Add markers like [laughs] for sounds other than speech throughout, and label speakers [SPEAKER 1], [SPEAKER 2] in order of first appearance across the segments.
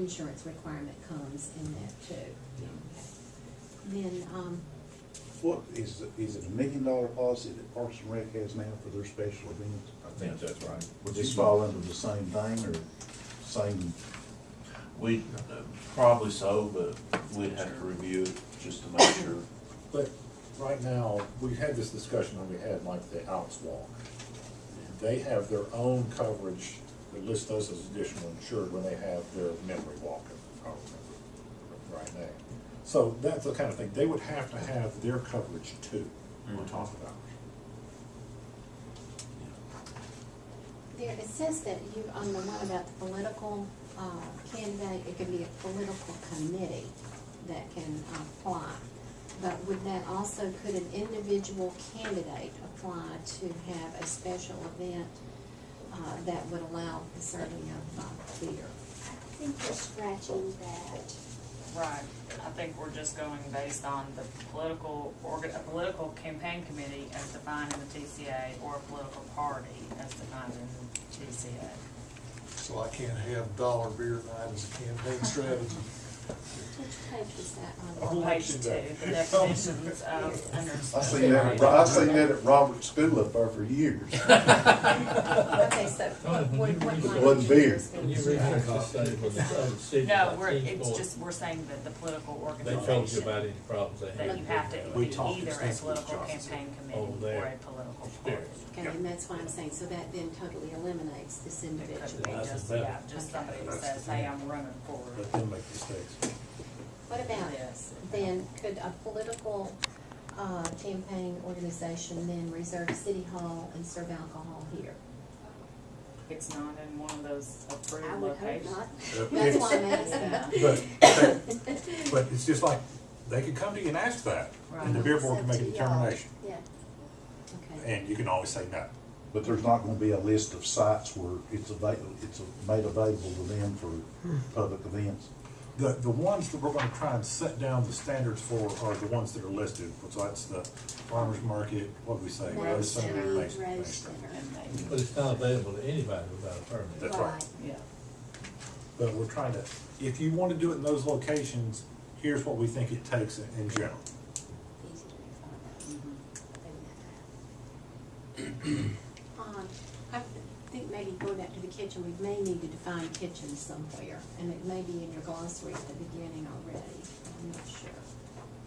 [SPEAKER 1] insurance requirement comes in that too. Then, um,
[SPEAKER 2] What, is, it- is it a million dollar policy that Parks and Rec has now for their special events?
[SPEAKER 3] I think that's right.
[SPEAKER 2] Would this fall under the same thing or same?
[SPEAKER 3] We, uh, probably so, but we'd have to review it just to make [coughs] sure.
[SPEAKER 4] But right now, we had this discussion when we had like the Alps Walk. They have their own coverage that lists those as additional insured when they have their memory walk, if I remember right now. So that's the kind of thing, they would have to have their coverage too,
[SPEAKER 1] Mm-hmm.
[SPEAKER 4] on top of ours.
[SPEAKER 1] there, it says that you, on the one about the political, uh, candidate, it could be a political committee that can apply. But would that also, could an individual candidate apply to have a special event, uh, that would allow the serving of, uh, beer?
[SPEAKER 5] I think we're scratching that.
[SPEAKER 6] Right, I think we're just going based on the political, orga- a political campaign committee as defined in the TCA or a political party as defined in the TCA.
[SPEAKER 7] So I can't have dollar beer night as a
[SPEAKER 4] [laughs]
[SPEAKER 7] campaign strategy.
[SPEAKER 1] Which page was that on?
[SPEAKER 6] [laughs] Or page two, the definitions of under.
[SPEAKER 2] I seen that, at Ro- I seen that at Robert's School up there for years.
[SPEAKER 1] Okay, so what, what line?
[SPEAKER 2] It wasn't beer.
[SPEAKER 1] is
[SPEAKER 8] Can you
[SPEAKER 1] this?
[SPEAKER 8] read that cost study for the other cities?
[SPEAKER 6] No,
[SPEAKER 8] like
[SPEAKER 6] we're, it's
[SPEAKER 8] Kingsport?
[SPEAKER 6] just, we're saying that the political
[SPEAKER 8] They told you
[SPEAKER 6] organization,
[SPEAKER 8] about any problems they had.
[SPEAKER 6] that you have to
[SPEAKER 4] We
[SPEAKER 6] be
[SPEAKER 4] talked
[SPEAKER 6] either a
[SPEAKER 4] extensively,
[SPEAKER 6] political
[SPEAKER 4] Johnson.
[SPEAKER 6] campaign
[SPEAKER 8] Oh,
[SPEAKER 6] committee
[SPEAKER 8] there.
[SPEAKER 6] or a political party.
[SPEAKER 8] Experience.
[SPEAKER 1] Okay, and that's why I'm saying, so that then totally eliminates this
[SPEAKER 6] It could be
[SPEAKER 1] individual.
[SPEAKER 8] That's
[SPEAKER 6] just,
[SPEAKER 8] better.
[SPEAKER 6] yeah, just somebody that says, hey, I'm running for
[SPEAKER 4] Let them make mistakes.
[SPEAKER 1] What about
[SPEAKER 6] Yes.
[SPEAKER 1] then, could a political, uh, campaign organization then reserve city hall and serve alcohol here?
[SPEAKER 6] It's not in one of those
[SPEAKER 1] I
[SPEAKER 6] approved
[SPEAKER 1] would hope
[SPEAKER 6] locations.
[SPEAKER 1] not. [laughs] That's why
[SPEAKER 4] But,
[SPEAKER 1] I'm asking.
[SPEAKER 4] they- but it's just like, they could come to you and ask that, and [laughs] the beer board can make a
[SPEAKER 1] It's up to y'all.
[SPEAKER 4] determination,
[SPEAKER 1] Yeah. Okay.
[SPEAKER 4] and you can always say no.
[SPEAKER 2] But there's not gonna be a list of sites where it's available, it's made available to them for public events.
[SPEAKER 4] The, the ones that we're gonna try and set down the standards for are the ones that are listed, so that's the farmer's market, what do we say?
[SPEAKER 1] Rose
[SPEAKER 4] Rose Center,
[SPEAKER 1] Center,
[SPEAKER 4] Main- Main
[SPEAKER 1] Rose
[SPEAKER 4] Street.
[SPEAKER 1] Center.
[SPEAKER 6] And they-
[SPEAKER 8] But it's not available to anybody without a permit.
[SPEAKER 4] That's right.
[SPEAKER 6] Yeah,
[SPEAKER 4] But we're trying to, if you wanna do it in those locations, here's what we think it takes in, in general.
[SPEAKER 1] Easy to find
[SPEAKER 6] mhm.
[SPEAKER 1] Um, I think maybe going back to the kitchen, we may need to define kitchen somewhere, and it may be in your glossary at the beginning already, I'm not sure.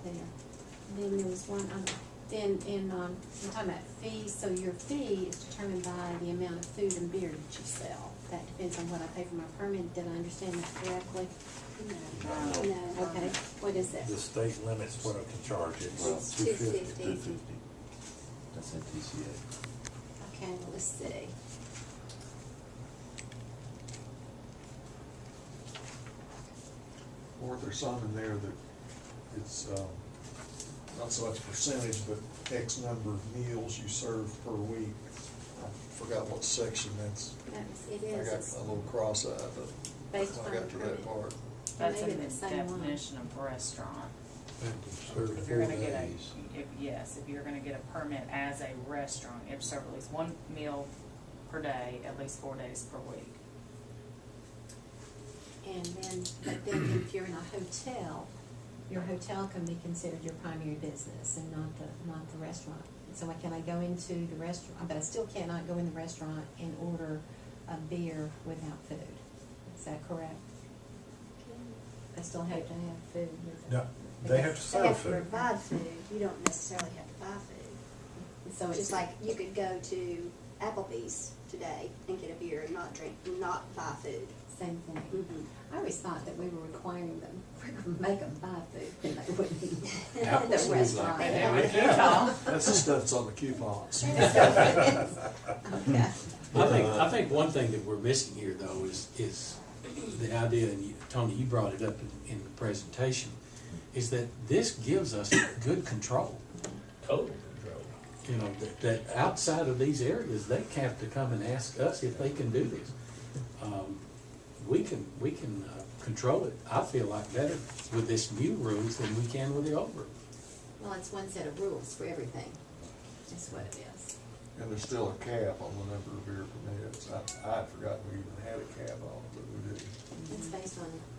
[SPEAKER 1] There, then there was one, um, then, in um, we're talking about fees, so your fee is determined by the amount of food and beer that you sell. That depends on what I pay for my permit, did I understand that correctly?
[SPEAKER 5] No, no.
[SPEAKER 1] Okay, what is it?
[SPEAKER 4] The state limits what I can charge, it's
[SPEAKER 5] It's
[SPEAKER 4] two fifty.
[SPEAKER 5] 250.
[SPEAKER 3] Two fifty. That's at TCA.
[SPEAKER 1] Okay, let's see.
[SPEAKER 7] Or if there's some in there that it's, um, not so much percentage, but X number of meals you serve per week. I forgot what section that's,
[SPEAKER 1] That's, it
[SPEAKER 7] I got
[SPEAKER 1] is, it's
[SPEAKER 7] a little cross-eyed, but
[SPEAKER 1] based
[SPEAKER 7] when
[SPEAKER 1] on
[SPEAKER 7] I got to
[SPEAKER 1] permit.
[SPEAKER 7] that part.
[SPEAKER 6] that's
[SPEAKER 1] Maybe
[SPEAKER 6] in the
[SPEAKER 1] the same one.
[SPEAKER 6] definition of restaurant. If you're
[SPEAKER 7] Thirty-four
[SPEAKER 6] gonna get a,
[SPEAKER 7] days.
[SPEAKER 6] if, yes, if you're gonna get a permit as a restaurant, you have to serve at least one meal per day, at least four days per week.
[SPEAKER 1] And then, but then if you're in a hotel, your hotel can be considered your primary business and not the, not the restaurant. So I, can I go into the restaurant, but I still cannot go in the restaurant and order a beer without food. Is that correct? I still have to have food with it.
[SPEAKER 4] No, they have to serve
[SPEAKER 5] They
[SPEAKER 4] food.
[SPEAKER 5] have to provide food, you don't necessarily have to buy food.
[SPEAKER 1] So it's
[SPEAKER 5] Just like you could go to Applebee's today and get a beer and not drink, not buy food.
[SPEAKER 1] same thing. I always thought that we were requiring them, [laughs] we could make them buy food when they wouldn't eat [laughs] at
[SPEAKER 7] Applebee's
[SPEAKER 1] the
[SPEAKER 7] like
[SPEAKER 1] restaurant.
[SPEAKER 7] that.
[SPEAKER 6] Yeah.
[SPEAKER 7] That's the stuff that's on the coupons.
[SPEAKER 1] Okay.
[SPEAKER 9] I think, I think one thing that we're missing here though is, is the idea, and you- Tony, you brought it up in, in the presentation, is that this gives us good control.
[SPEAKER 8] Total control.
[SPEAKER 9] You know, that, that outside of these areas, they have to come and ask us if they can do this. Um, We can, we can, uh, control it, I feel like better with this new rules than we can with the old rules.
[SPEAKER 1] Well, it's one set of rules for everything, is what it is.
[SPEAKER 7] And there's still a cap on the number of beer permits. I, I'd forgotten we even had a cap on it, but we do.
[SPEAKER 1] It's based on